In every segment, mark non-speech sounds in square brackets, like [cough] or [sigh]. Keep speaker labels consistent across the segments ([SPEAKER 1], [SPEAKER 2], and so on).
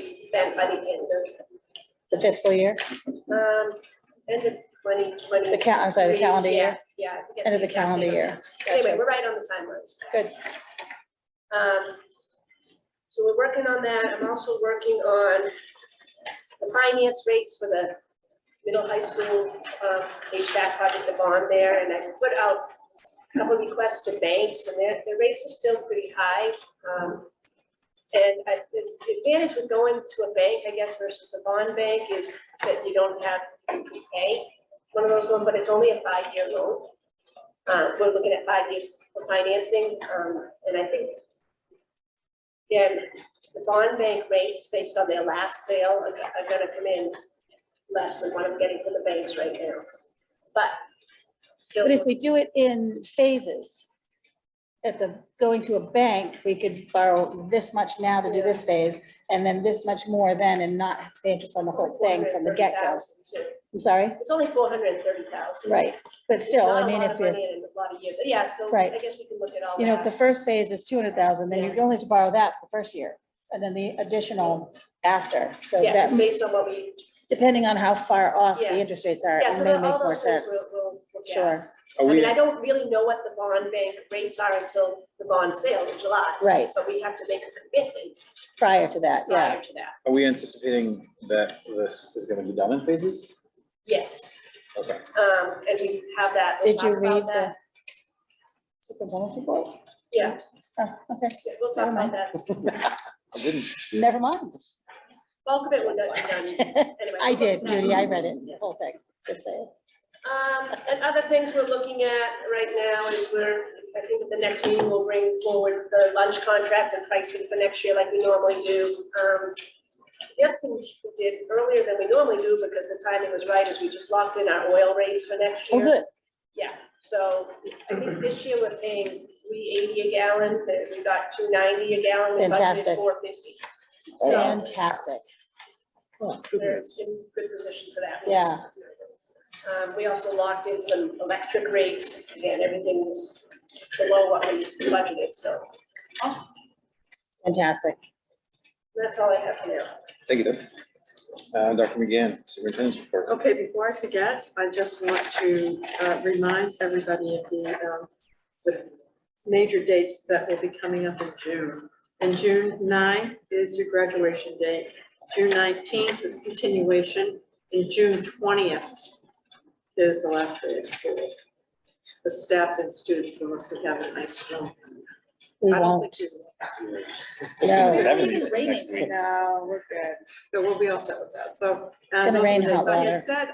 [SPEAKER 1] spent by the end of,
[SPEAKER 2] the fiscal year,
[SPEAKER 1] um, end of twenty twenty.
[SPEAKER 2] the cal, I'm sorry, the calendar year,
[SPEAKER 1] Yeah. I forget
[SPEAKER 2] end of the
[SPEAKER 1] exact
[SPEAKER 2] calendar
[SPEAKER 1] date.
[SPEAKER 2] year.
[SPEAKER 1] Anyway,
[SPEAKER 2] Gotcha.
[SPEAKER 1] we're right on the timelines.
[SPEAKER 2] Good.
[SPEAKER 1] Um, so we're working on that. I'm also working on the finance rates for the middle high school, um, HVAC project, the bond there, and I put out a couple requests to banks, and their, their rates are still pretty high. Um, and I, the the advantage with going to a bank, I guess, versus the bond bank is that you don't have to prepay. One of those ones, but it's only at five years old. Uh, we're looking at five years for financing, um, and I think again, the bond bank rates based on their last sale are go- are gonna come in less than what I'm getting from the banks right now. But still,
[SPEAKER 2] But if we do it in phases, at the, going to a bank, we could borrow this much now to do this phase, and then this much more then, and not have to pay interest on the whole thing from the get-go.
[SPEAKER 1] 430,000 too.
[SPEAKER 2] I'm sorry,
[SPEAKER 1] It's only four hundred and thirty thousand.
[SPEAKER 2] right, but still, I mean, if you're,
[SPEAKER 1] In a lot of years, yeah, so I
[SPEAKER 2] Right.
[SPEAKER 1] guess we can look at all
[SPEAKER 2] you know, if the
[SPEAKER 1] that.
[SPEAKER 2] first phase is two hundred thousand, then
[SPEAKER 1] Yeah.
[SPEAKER 2] you're only to borrow that the first year, and then the additional after, so
[SPEAKER 1] Yeah,
[SPEAKER 2] that,
[SPEAKER 1] it's based on what we,
[SPEAKER 2] depending on how far off
[SPEAKER 1] Yeah.
[SPEAKER 2] the interest rates are,
[SPEAKER 1] yeah,
[SPEAKER 2] it
[SPEAKER 1] so
[SPEAKER 2] may
[SPEAKER 1] the-
[SPEAKER 2] make
[SPEAKER 1] all
[SPEAKER 2] more
[SPEAKER 1] those things
[SPEAKER 2] sense.
[SPEAKER 1] we'll, we'll look at.
[SPEAKER 2] Sure,
[SPEAKER 1] I
[SPEAKER 3] Are
[SPEAKER 1] mean,
[SPEAKER 3] we,
[SPEAKER 1] I don't really know what the bond bank rates are until the bond sale in July,
[SPEAKER 2] right,
[SPEAKER 1] but we have to make a commitment
[SPEAKER 2] prior to that, yeah.
[SPEAKER 1] prior to that.
[SPEAKER 3] are we anticipating that this is gonna be done in phases?
[SPEAKER 1] Yes,
[SPEAKER 3] Okay.
[SPEAKER 1] um, and we have that. we'll
[SPEAKER 2] Did you
[SPEAKER 1] talk about
[SPEAKER 2] read the
[SPEAKER 1] that.
[SPEAKER 2] superintendent's report?
[SPEAKER 1] Yeah,
[SPEAKER 2] Oh, okay,
[SPEAKER 1] yeah, we'll talk about that.
[SPEAKER 3] I didn't,
[SPEAKER 2] never mind.
[SPEAKER 1] Bulk of it will not be done anyway.
[SPEAKER 2] [laughs] I did, Judy, I read it,
[SPEAKER 1] Yeah.
[SPEAKER 2] the whole thing, just say.
[SPEAKER 1] Um, and other things we're looking at right now is we're, I think at the next meeting, we'll bring forward the lunch contract and pricing for next year like we normally do. Um, the other thing we did earlier than we normally do because the timing was right is we just locked in our oil rates for next
[SPEAKER 2] Oh,
[SPEAKER 1] year.
[SPEAKER 2] good,
[SPEAKER 1] Yeah, so I think this year we're paying three eighty a gallon, that we got two ninety a gallon, we budgeted
[SPEAKER 2] Fantastic.
[SPEAKER 1] four fifty. So
[SPEAKER 2] fantastic.
[SPEAKER 3] oh,
[SPEAKER 1] we're in good position for that.
[SPEAKER 2] Yeah.
[SPEAKER 1] Um, we also locked in some electric rates, again, everything was below what we budgeted, so
[SPEAKER 2] Fantastic.
[SPEAKER 1] that's all I have for now.
[SPEAKER 3] take it up. Uh, Dr. McGann, superintendent's report.
[SPEAKER 4] Okay, before I forget, I just want to uh, remind everybody of the, um, the major dates that will be coming up in June. And June 9th is your graduation date. June nineteenth is continuation, and June twentieth is the last day of school. The staff and students, unless we have a nice jump.
[SPEAKER 2] We
[SPEAKER 4] I don't
[SPEAKER 2] won't,
[SPEAKER 4] think we will.
[SPEAKER 3] It's been
[SPEAKER 2] No.
[SPEAKER 3] the seventies next week.
[SPEAKER 4] No, we're good. But we'll be all set with that, so. uh,
[SPEAKER 2] Gonna
[SPEAKER 4] those
[SPEAKER 2] rain
[SPEAKER 4] are the
[SPEAKER 2] hot
[SPEAKER 4] dates. I
[SPEAKER 2] water.
[SPEAKER 4] had said,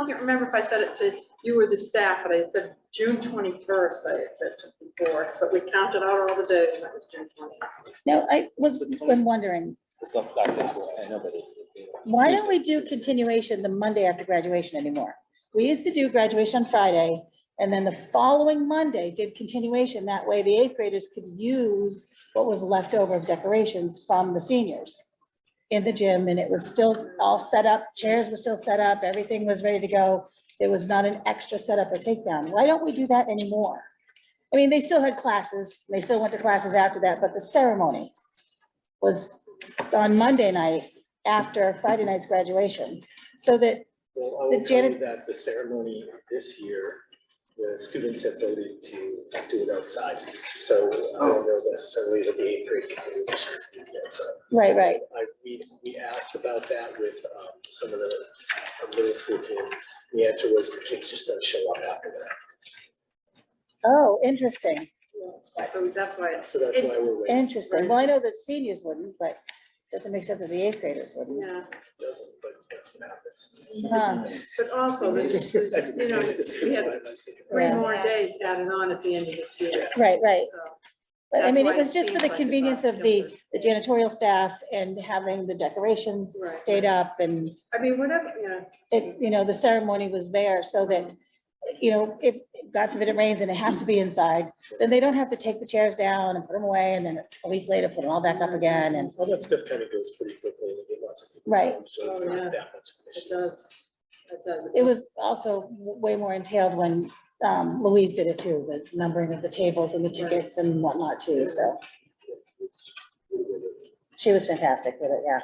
[SPEAKER 4] I can't remember if I said it to you or the staff, but I said June twenty-first, I had said to before, so we counted out all the days, and that was June twenty-first.
[SPEAKER 2] no, I was, I'm wondering,
[SPEAKER 3] It's not last this week, I know, but it- it-
[SPEAKER 2] why don't we do continuation the Monday after graduation anymore? We used to do graduation on Friday, and then the following Monday did continuation, that way the eighth graders could use what was left over of decorations from the seniors in the gym, and it was still all set up, chairs were still set up, everything was ready to go. There was not an extra setup or takedown. Why don't we do that anymore? I mean, they still had classes, they still went to classes after that, but the ceremony was on Monday night after Friday night's graduation, so that,
[SPEAKER 5] Well, I
[SPEAKER 2] The
[SPEAKER 5] will tell you
[SPEAKER 2] janit-
[SPEAKER 5] that the ceremony this year, the students have voted to do it outside. So uh, I
[SPEAKER 2] Oh.
[SPEAKER 5] don't know necessarily that the eighth grade can do this this weekend, so.
[SPEAKER 2] right, right,
[SPEAKER 5] I, we, we asked about that with, um, some of the uh, middle school team. The answer was the kids just don't show up after that.
[SPEAKER 2] oh, interesting,
[SPEAKER 4] So that's why it's,
[SPEAKER 5] So that's why we're waiting.
[SPEAKER 2] interesting, well, I know that seniors wouldn't, but doesn't make sense that the eighth graders wouldn't.
[SPEAKER 4] yeah,
[SPEAKER 5] It Doesn't, but that's what happens.
[SPEAKER 4] Mm-hmm.
[SPEAKER 2] Huh,
[SPEAKER 4] but also, this, this, you know, we
[SPEAKER 5] [laughs]
[SPEAKER 4] had three
[SPEAKER 2] Yeah.
[SPEAKER 4] more days added on at the end of this year.
[SPEAKER 2] Right, right,
[SPEAKER 4] so.
[SPEAKER 2] but I
[SPEAKER 4] That's
[SPEAKER 2] mean,
[SPEAKER 4] why
[SPEAKER 2] it was just for
[SPEAKER 4] seems
[SPEAKER 2] the
[SPEAKER 4] like
[SPEAKER 2] convenience of the,
[SPEAKER 4] different.
[SPEAKER 2] the janitorial staff and having the decorations
[SPEAKER 4] Right.
[SPEAKER 2] stayed up and
[SPEAKER 4] I mean, whatever, yeah,
[SPEAKER 2] it, you know, the ceremony was there so that, you know, if, God forbid it rains and it has to be inside, then they don't have to take the chairs down and put them away and then a week later put them all back up again and,
[SPEAKER 5] All that stuff kind of goes pretty quickly and we get lots of people.
[SPEAKER 2] Right.
[SPEAKER 5] home, So it's
[SPEAKER 4] Oh,
[SPEAKER 5] not
[SPEAKER 4] yeah.
[SPEAKER 5] that much of an
[SPEAKER 4] it
[SPEAKER 5] issue.
[SPEAKER 4] does. It does.
[SPEAKER 2] it was also way more entailed when um, Louise did it too, the numbering of the tables and the tickets and whatnot too, so she was fantastic with it, yeah.